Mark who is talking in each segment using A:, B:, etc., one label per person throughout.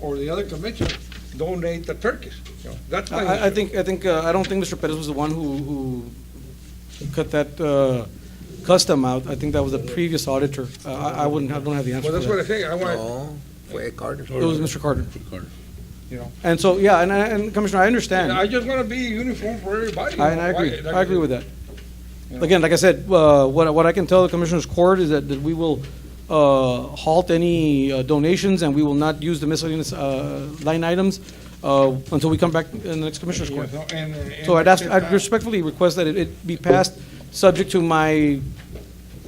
A: or the other commission donate the turkeys. You know, That's my
B: I, I
A: issue.
B: think, I think, uh, I don't think Mr. Perez was the one who, who cut that, uh, custom out. I think that was the previous auditor. Uh, I, I wouldn't have, don't have the answer
A: Well,
B: for
A: that's what I
B: that.
A: say, I want,
C: No, fue Carter.
B: It was Mr. Carter.
A: you know,
B: And so, yeah, and, I- and Commissioner, I understand.
A: I just want to be uniform for everybody.
B: I, and I agree, I agree with that. Again, like I said, uh, what, I- what I can tell the Commissioners Court is that, that we will, uh, halt any uh, donations and we will not use the miscellaneous, uh, line items, uh, until we come back in the next Commissioners Court. So I'd ask, I'd respectfully request that it- it be passed, subject to my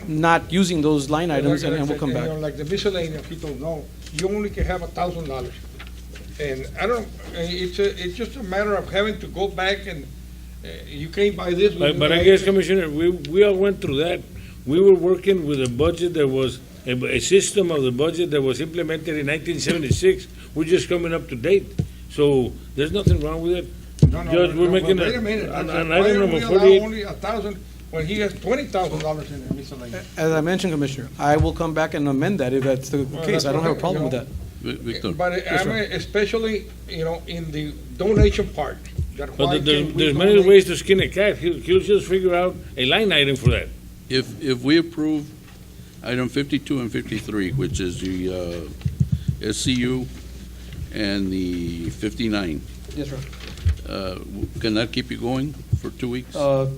B: not using those line items, and and we'll come back.
A: Like the miscellaneous people know, you only can have a thousand dollars. And I don't, eh, it's, a- it's just a matter of having to go back and eh, you can't buy this.
D: But, but I guess, Commissioner, we, we all went through that. We were working with a budget that was, a, a system of the budget that was implemented in nineteen seventy-six. We're just coming up to date. So there's nothing wrong with it.
A: No, no,
D: Judge,
A: no,
D: we're
A: no,
D: making
A: wait
D: a-
A: minute. I
D: an-
A: said,
D: an
A: why
D: item
A: do
D: number
A: we allow
D: 48?
A: Only a thousand, when he has twenty thousand dollars in the miscellaneous.
B: As I mentioned, Commissioner, I will come back and amend that if that's the case. I don't have a problem with that.
E: Vic- Victor,
A: But I mean, especially, you know, in the donation part, that
D: But
A: why
D: there- there's,
A: can't we
D: there's many
A: donate-
D: ways to skin a cat. He'll, he'll just figure out a line item for that.
E: if, if we approve item 52 and 53, which is the uh, SCU and the 59,
B: Yes, sir.
E: uh, w- can that keep you going for two weeks?
B: Uh,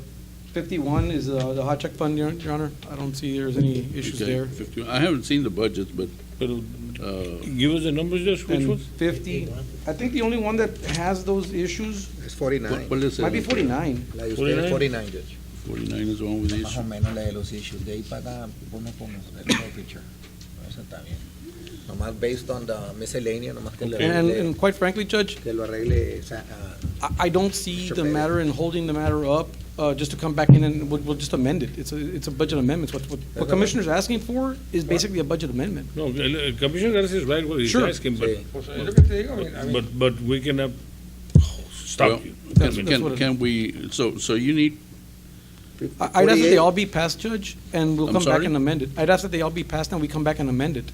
B: 51 is uh, the hot check fund, Your Your Honor. I don't see there's any issues
E: Okay,
B: there.
E: 51. I haven't seen the budgets, but
D: But
E: uh,
D: give us the numbers, Judge, which
B: And
D: ones?
B: 50, I think the only one that has those issues
C: Es
E: what
C: 49.
E: what is it?
B: might be 49.
C: La de usted es 49, Judge.
E: 49 is the one with the
C: Más
B: Uh-huh.
C: o
E: issue.
C: menos la de los issues. De ahí para acá, vos no pongas el nuevo picture. Eso está bien. Nomás based on the miscellaneous, nomás que lo
B: And,
C: arregle,
B: and quite frankly, Judge,
C: que lo arregle, o sea, ah,
B: I, I don't see
C: Mr.
B: the
C: Perez.
B: matter in holding the matter up, uh, just to come back in and we'll, we'll just amend it. It's a, it's a budget amendment. What, what, what
C: That's
B: Commissioner's asking for is basically a budget amendment.
D: No, uh, Commissioner Garcia is right what he's
B: Sure.
D: asking, but,
C: Sí.
A: Pues, es lo que te digo, I mean, I mean-
D: but, but we cannot
E: Well,
D: stop you.
B: That's-
E: Can,
B: that's what it-
E: can- can we, so, so you need,
B: I, I'd ask that they
C: 48.
B: all be passed, Judge, and we'll
E: I'm
B: come back
E: sorry?
B: and amend it. I'd ask that they all be passed and we come back and amend it.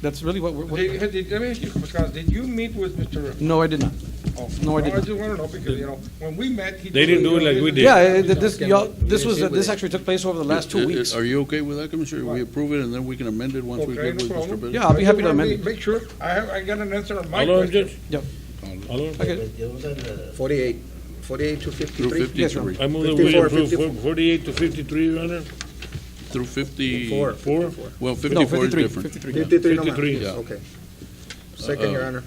B: That's really what we're,
A: Did,
B: what,
A: had- did- let me ask you, Pascal, did you meet with Mr.
B: no, I did not.
A: Oh,
B: No, I
A: I
B: didn't.
A: just wanna know, because, you know, when we met, he.
D: They didn't
A: told me,
D: do it
A: you know,
D: like we
A: this
D: did.
A: is-
B: Yeah, eh, th- this,
C: Yeah,
B: y'all,
C: we
B: this
C: didn't
B: was, uh,
C: see with
B: this
C: it.
B: actually took place over the last
E: i- i-
B: two weeks.
E: uh, are you okay with that, Commissioner? We approve it and then we can amend it once we
A: Okay,
E: get
A: no
E: with Mr.
A: problem.
E: Perez?
B: Yeah, I'll be
A: I
B: happy
A: just
B: to
A: wanna
B: amend
A: be-
B: it.
A: Make sure, I have, I got an answer on my
D: Hello,
A: question.
D: Judge?
B: Yep.
D: Hello?
B: Okay,
C: 48, 48 to
E: Through
C: 53.
B: Yes, Your Honor.
E: 53,
D: I move that we
C: 54,
D: approve
C: 54.
D: for- forty-eight to fifty-three, Your Honor.
E: through 50.
C: Four.
D: Four?
E: Well,
B: no,
E: 54 is
B: 53,
E: different.
B: 53.
C: 53 nomás.
D: 53.
E: Yeah.
C: Okay. Second, Your Honor.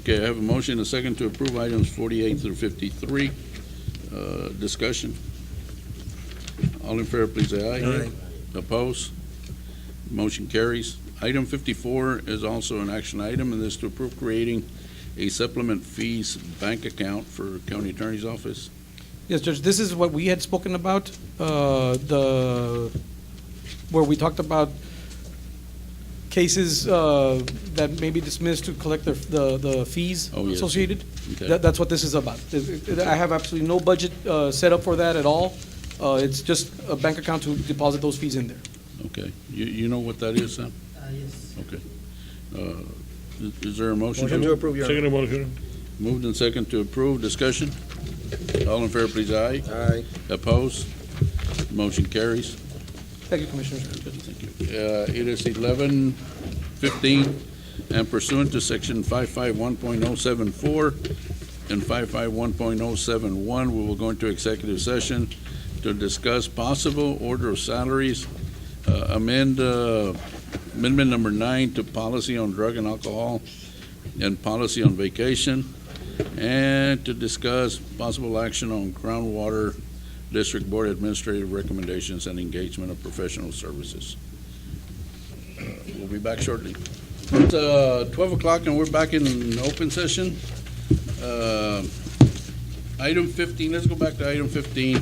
E: Okay, I have a motion, and a second to approve items 48 through 53. Uh, Discussion. All in favor, please say aye.
C: Aye.
E: Oppose? Motion carries. Item 54 is also an action item, and this to approve creating a supplement fees bank account for county attorney's office.
B: Yes, Judge, this is what we had spoken about, uh, the, where we talked about cases uh, that may be dismissed to collect their- the, the fees
E: Oh, yes.
B: associated.
E: Okay.
B: That- That's what this is about. It- it- I have absolutely no budget uh, set up for that at all. Uh, It's just a bank account to deposit those fees in there.
E: Okay, you, you know what that is, Sam?
F: yes.
E: Okay. Uh, is- Is there a motion?
C: Motion to approve, Your Honor.
D: Second motion.
E: Moved and second to approve. Discussion. All in favor, please aye.
C: Aye.
E: Opposed? Motion carries.
B: Thank you, Commissioners.
E: Uh, It is 11:15, and pursuant to Section 551.074 and 551.071, we will go into executive session to discuss possible order of salaries, uh, amend uh, amendment number nine to policy on drug and alcohol and policy on vacation, and to discuss possible action on groundwater District Board Administrative Recommendations and Engagement of Professional Services. Uh, We'll be back shortly. It's uh, 12 o'clock and we're back in open session. Uh, Item 15, let's go back to item 15.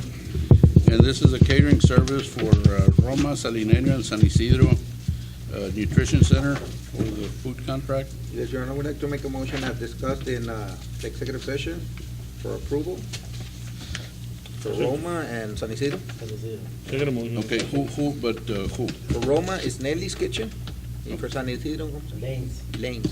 E: And this is a catering service for uh, Roma, Salinero, and San Isidro uh, Nutrition Center for the food contract.
C: Yes, Your Honor, we'd like to make a motion as discussed in uh, the executive session for approval for Roma and San Isidro.
D: Second motion.
E: Okay, who, who, but uh, who?
C: For Roma, it's Nelly's Kitchen, and for San Isidro,
F: Lanes.
C: Lane's.